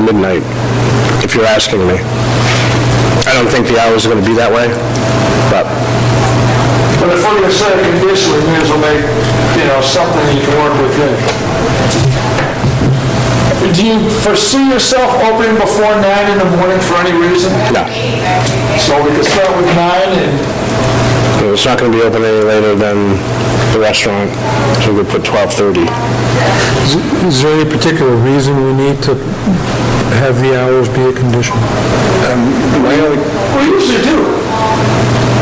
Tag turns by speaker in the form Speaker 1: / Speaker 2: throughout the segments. Speaker 1: midnight, if you're asking me. I don't think the hours are going to be that way, but
Speaker 2: But if we're gonna set a condition, we may as well make, you know, something you can work within. Do you foresee yourself opening before nine in the morning for any reason?
Speaker 1: no.
Speaker 2: So we can start with nine and,
Speaker 1: It's not going to be open any later than the restaurant, so we put 12:30.
Speaker 3: Is there any particular reason we need to have the hours be a condition?
Speaker 2: Um, we usually do.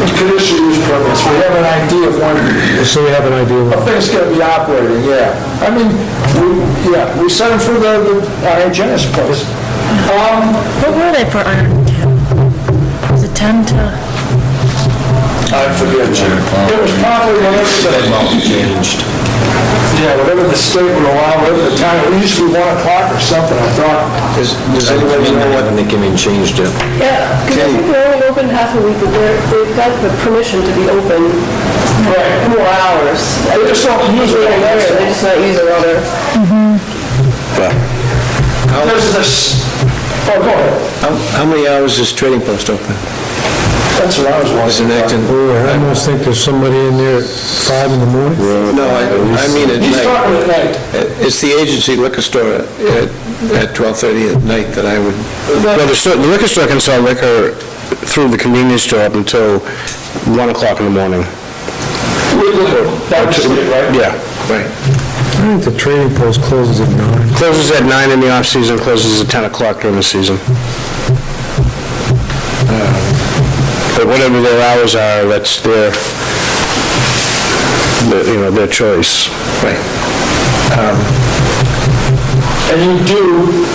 Speaker 2: We could issue use permits, we have an idea of when
Speaker 3: So we have an idea
Speaker 2: a
Speaker 3: of
Speaker 2: thing's gonna be operating, yeah. I mean, we, yeah, we set them for the, the- our hygienist place. Um,
Speaker 4: What were they for iron? Was it 10 to,
Speaker 2: I forget, Jim. It was probably one of the...
Speaker 5: changed.
Speaker 2: Yeah, whatever the state would allow, whatever the time, it used to be one o'clock or something, I thought.
Speaker 5: Does does anybody know what they came and changed it?
Speaker 6: Yeah, because I think they're only open half a week, but they're, they've got the permission to be open
Speaker 2: Right.
Speaker 6: more hours.
Speaker 2: They just don't use it all
Speaker 6: They're
Speaker 2: day.
Speaker 6: just not using all their
Speaker 2: There's this, oh, go ahead.
Speaker 5: How how many hours is Trading Post open?
Speaker 2: That's what I was wondering.
Speaker 5: Is it acting?
Speaker 3: I almost think there's somebody in there at five in the morning.
Speaker 5: No, I I mean at
Speaker 2: He's
Speaker 5: night.
Speaker 2: talking at night.
Speaker 5: It's the agency liquor store at at 12:30 at night that I would,
Speaker 1: Well, the store- the liquor store can sell liquor through the convenience store up until 1 o'clock in the morning.
Speaker 2: That was it, right?
Speaker 1: Yeah.
Speaker 5: right.
Speaker 3: I think the trading post closes at nine.
Speaker 1: Closes at 9 in the off-season, closes at 10 o'clock during the season. Uh, But whatever their hours are, that's their, their- you know, their choice. Right.
Speaker 2: And you do,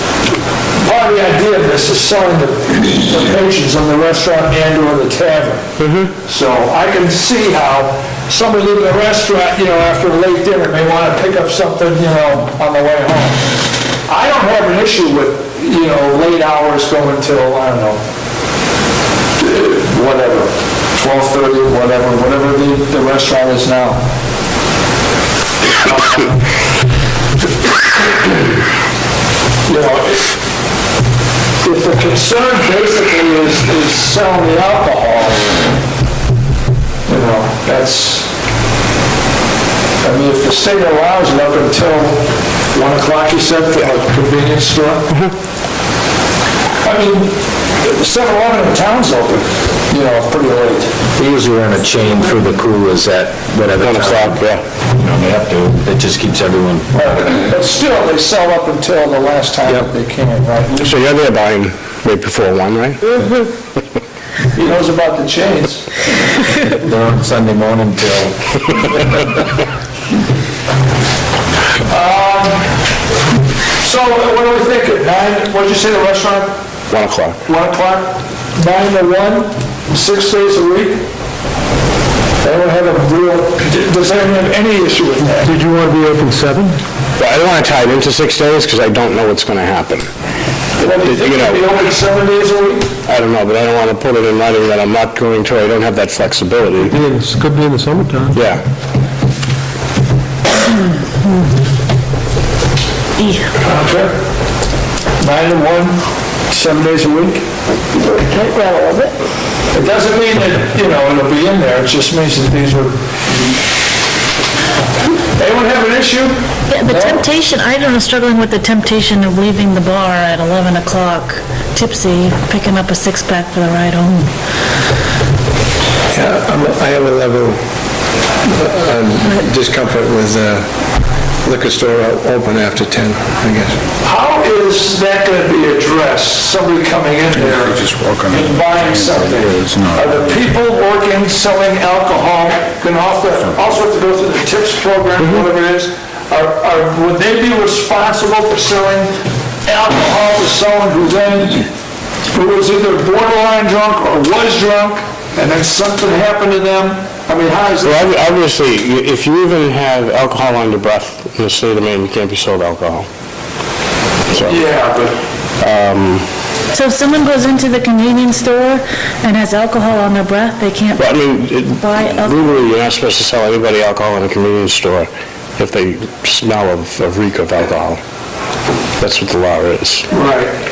Speaker 2: part of the idea of this is selling the the patrons in the restaurant and or the tavern. So I can see how somebody leaving a restaurant, you know, after a late dinner may want to pick up something, you know, on the way home. I don't have an issue with, you know, late hours going till, I don't know, whatever, 12:30, whatever, whatever the the restaurant is now. you know, if if the concern basically is, is selling the alcohol, you know, that's, I mean, if the state allows it up until 1 o'clock, you said, for a convenience store? I mean, 7-Eleven in town's open, you know, pretty late.
Speaker 5: They usually run a chain through the coolers at whatever time.
Speaker 1: 1 o'clock, yeah.
Speaker 5: You know, they have to, it just keeps everyone.
Speaker 2: But still, they sell up until the last time that they can, right?
Speaker 1: So you're there buying right before 1, right?
Speaker 2: He knows about the chains.
Speaker 5: They're on Sunday morning till
Speaker 2: Um, So what do we think, nine, what'd you say, the restaurant
Speaker 1: 1 o'clock.
Speaker 2: 1 o'clock, 9 to 1, six days a week. They don't have a real, does anyone have any issue with that?
Speaker 3: Did you want to be open seven?
Speaker 1: But I don't want to tie it into six days because I don't know what's going to happen.
Speaker 2: Well, do you think they'd be open seven days a week?
Speaker 1: I don't know, but I don't want to put it in writing that I'm not going to, I don't have that flexibility.
Speaker 3: It could be in the summertime.
Speaker 1: Yeah.
Speaker 2: Okay. 9 to 1, seven days a week?
Speaker 6: playground a little bit.
Speaker 2: It doesn't mean that, you know, it'll be in there, it just means that these are... Anyone have an issue?
Speaker 4: yeah, the temptation, I don't know, struggling with the temptation of leaving the bar at 11 o'clock, tipsy, picking up a six-pack for the ride home.
Speaker 5: Yeah, I'm- I have a level um, discomfort with uh, liquor store o- open after 10, I guess.
Speaker 2: How is that going to be addressed, somebody coming in there and buying something? Are the people working, selling alcohol, going to also, also have to go through the tips program, whatever it is? Are, are, would they be responsible for selling alcohol to someone who then, who was either borderline drunk or was drunk, and then something happened to them? I mean, how is that?
Speaker 1: Well, ob- obviously, you- if you even have alcohol on your breath in the state of Maine, you can't be sold alcohol.
Speaker 2: Yeah, but
Speaker 4: So if someone goes into the convenience store and has alcohol on their breath, they can't
Speaker 1: But I mean, it-
Speaker 4: buy alcohol.
Speaker 1: legally, you're not supposed to sell anybody alcohol in a convenience store if they smell of, of reek of alcohol. That's what the law is.
Speaker 2: Right.